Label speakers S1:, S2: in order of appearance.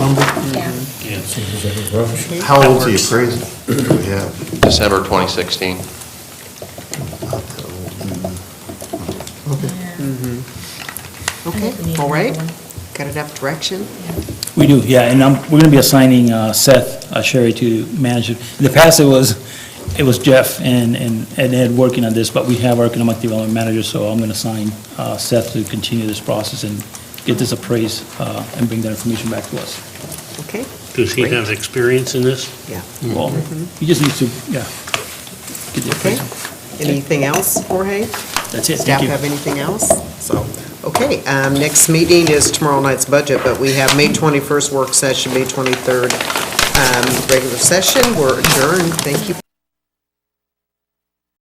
S1: How old's the appraisal that we have?
S2: December 2016.
S1: Not that old.
S3: Okay, all right. Got enough direction?
S4: We do, yeah, and um, we're going to be assigning uh, Seth uh, Sherry to manage it. In the past, it was, it was Jeff and and and Ed working on this, but we have our economic development manager, so I'm going to assign uh, Seth to continue this process and get this appraised uh, and bring that information back to us.
S3: Okay,
S5: Does he
S3: Great.
S5: have experience in this?
S3: yeah,
S4: Well, he just needs to, yeah, get
S3: Mm-hmm.
S4: the
S3: okay.
S4: appraisal.
S3: Anything else, Jorge?
S4: That's it,
S3: Staff
S4: thank you.
S3: have anything else? So, okay, um, next meeting is tomorrow night's budget, but we have May 21st work session, May 23rd um, regular session. We're adjourned. Thank you.